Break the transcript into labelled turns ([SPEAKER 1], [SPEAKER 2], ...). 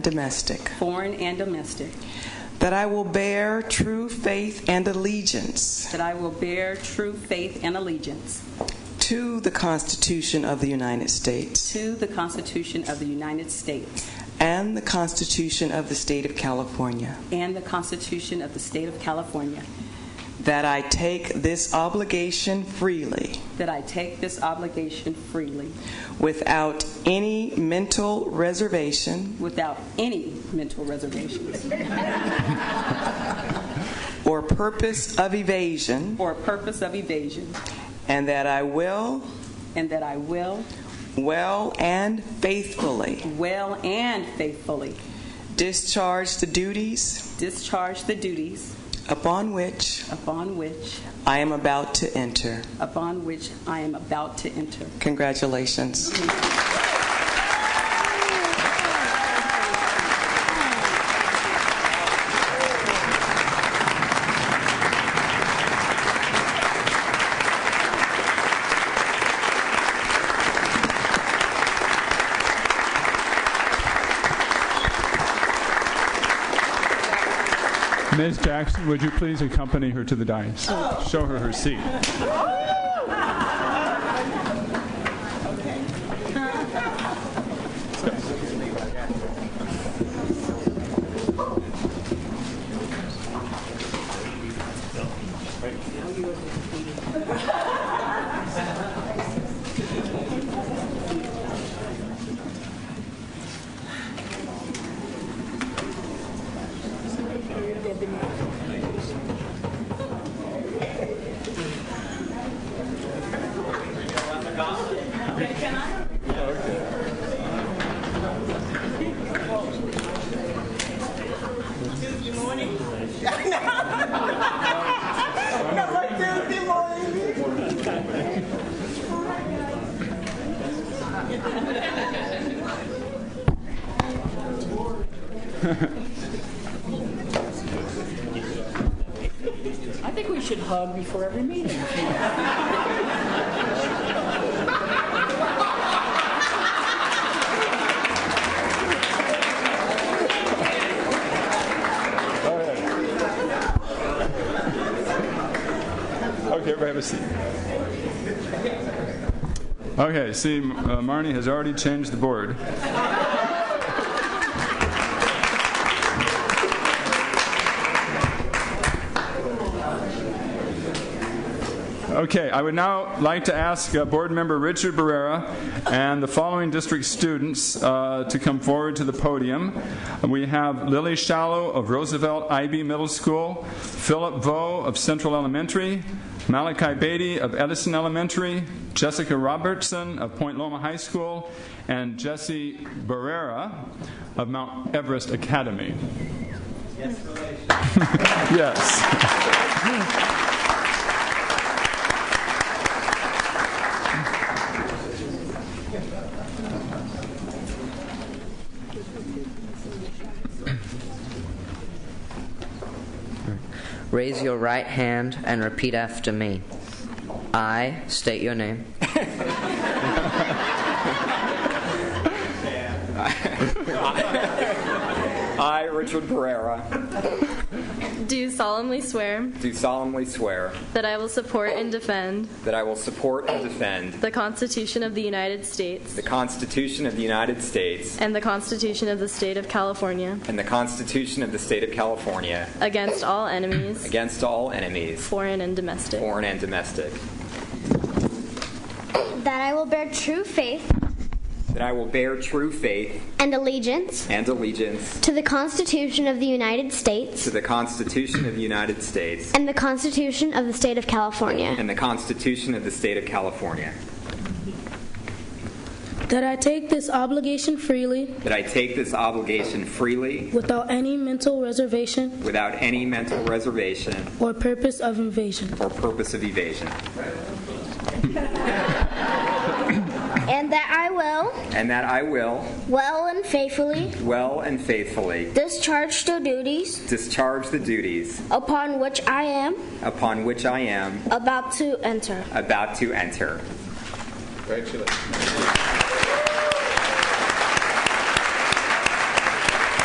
[SPEAKER 1] domestic,
[SPEAKER 2] foreign and domestic,
[SPEAKER 1] that I will bear true faith and allegiance
[SPEAKER 2] that I will bear true faith and allegiance
[SPEAKER 1] to the Constitution of the United States
[SPEAKER 2] to the Constitution of the United States
[SPEAKER 1] and the Constitution of the State of California,
[SPEAKER 2] and the Constitution of the State of California,
[SPEAKER 1] that I take this obligation freely
[SPEAKER 2] that I take this obligation freely
[SPEAKER 1] without any mental reservation
[SPEAKER 2] without any mental reservations
[SPEAKER 1] or purpose of evasion,
[SPEAKER 2] or purpose of evasion,
[SPEAKER 1] and that I will
[SPEAKER 2] and that I will
[SPEAKER 1] well and faithfully
[SPEAKER 2] well and faithfully
[SPEAKER 1] discharge the duties
[SPEAKER 2] discharge the duties
[SPEAKER 1] upon which
[SPEAKER 2] upon which
[SPEAKER 1] I am about to enter.
[SPEAKER 2] upon which I am about to enter.
[SPEAKER 1] Congratulations.
[SPEAKER 3] Ms. Jackson, would you please accompany her to the dais? Show her her seat.
[SPEAKER 4] I think we should hug before every meeting.
[SPEAKER 3] Okay, everybody have a seat. Okay, see, M- uh, Marnie has already changed the board. Okay, I would now like to ask uh, Board Member Richard Barrera and the following district students uh, to come forward to the podium. We have Lily Shallow of Roosevelt IB Middle School, Philip Vo of Central Elementary, Malachi Beatty of Edison Elementary, Jessica Robertson of Point Loma High School, and Jesse Barrera of Mount Everest Academy. Yes. yes.
[SPEAKER 5] Raise your right hand and repeat after me. I state your name.
[SPEAKER 6] I, Richard Pereira,
[SPEAKER 7] Do solemnly swear
[SPEAKER 6] do solemnly swear
[SPEAKER 7] that I will support and defend
[SPEAKER 6] that I will support and defend
[SPEAKER 7] the Constitution of the United States
[SPEAKER 6] the Constitution of the United States
[SPEAKER 7] and the Constitution of the State of California
[SPEAKER 6] and the Constitution of the State of California
[SPEAKER 7] against all enemies,
[SPEAKER 6] against all enemies,
[SPEAKER 7] foreign and domestic,
[SPEAKER 6] foreign and domestic,
[SPEAKER 8] That I will bear true faith
[SPEAKER 6] that I will bear true faith
[SPEAKER 8] and allegiance
[SPEAKER 6] and allegiance
[SPEAKER 8] to the Constitution of the United
[SPEAKER 6] to
[SPEAKER 8] States
[SPEAKER 6] the Constitution of the United States
[SPEAKER 8] and the Constitution of the State of California.
[SPEAKER 6] and the Constitution of the State of California,
[SPEAKER 9] That I take this obligation freely
[SPEAKER 6] that I take this obligation freely
[SPEAKER 9] without any mental reservation
[SPEAKER 6] without any mental reservation
[SPEAKER 9] or purpose of invasion.
[SPEAKER 6] or purpose of evasion,
[SPEAKER 8] And that I will,
[SPEAKER 6] and that I will,
[SPEAKER 8] well and faithfully,
[SPEAKER 6] well and faithfully,
[SPEAKER 8] discharge the duties
[SPEAKER 6] discharge the duties
[SPEAKER 8] upon which I am
[SPEAKER 6] upon which I am
[SPEAKER 8] about to enter.
[SPEAKER 6] about to enter.
[SPEAKER 8] Congratulations.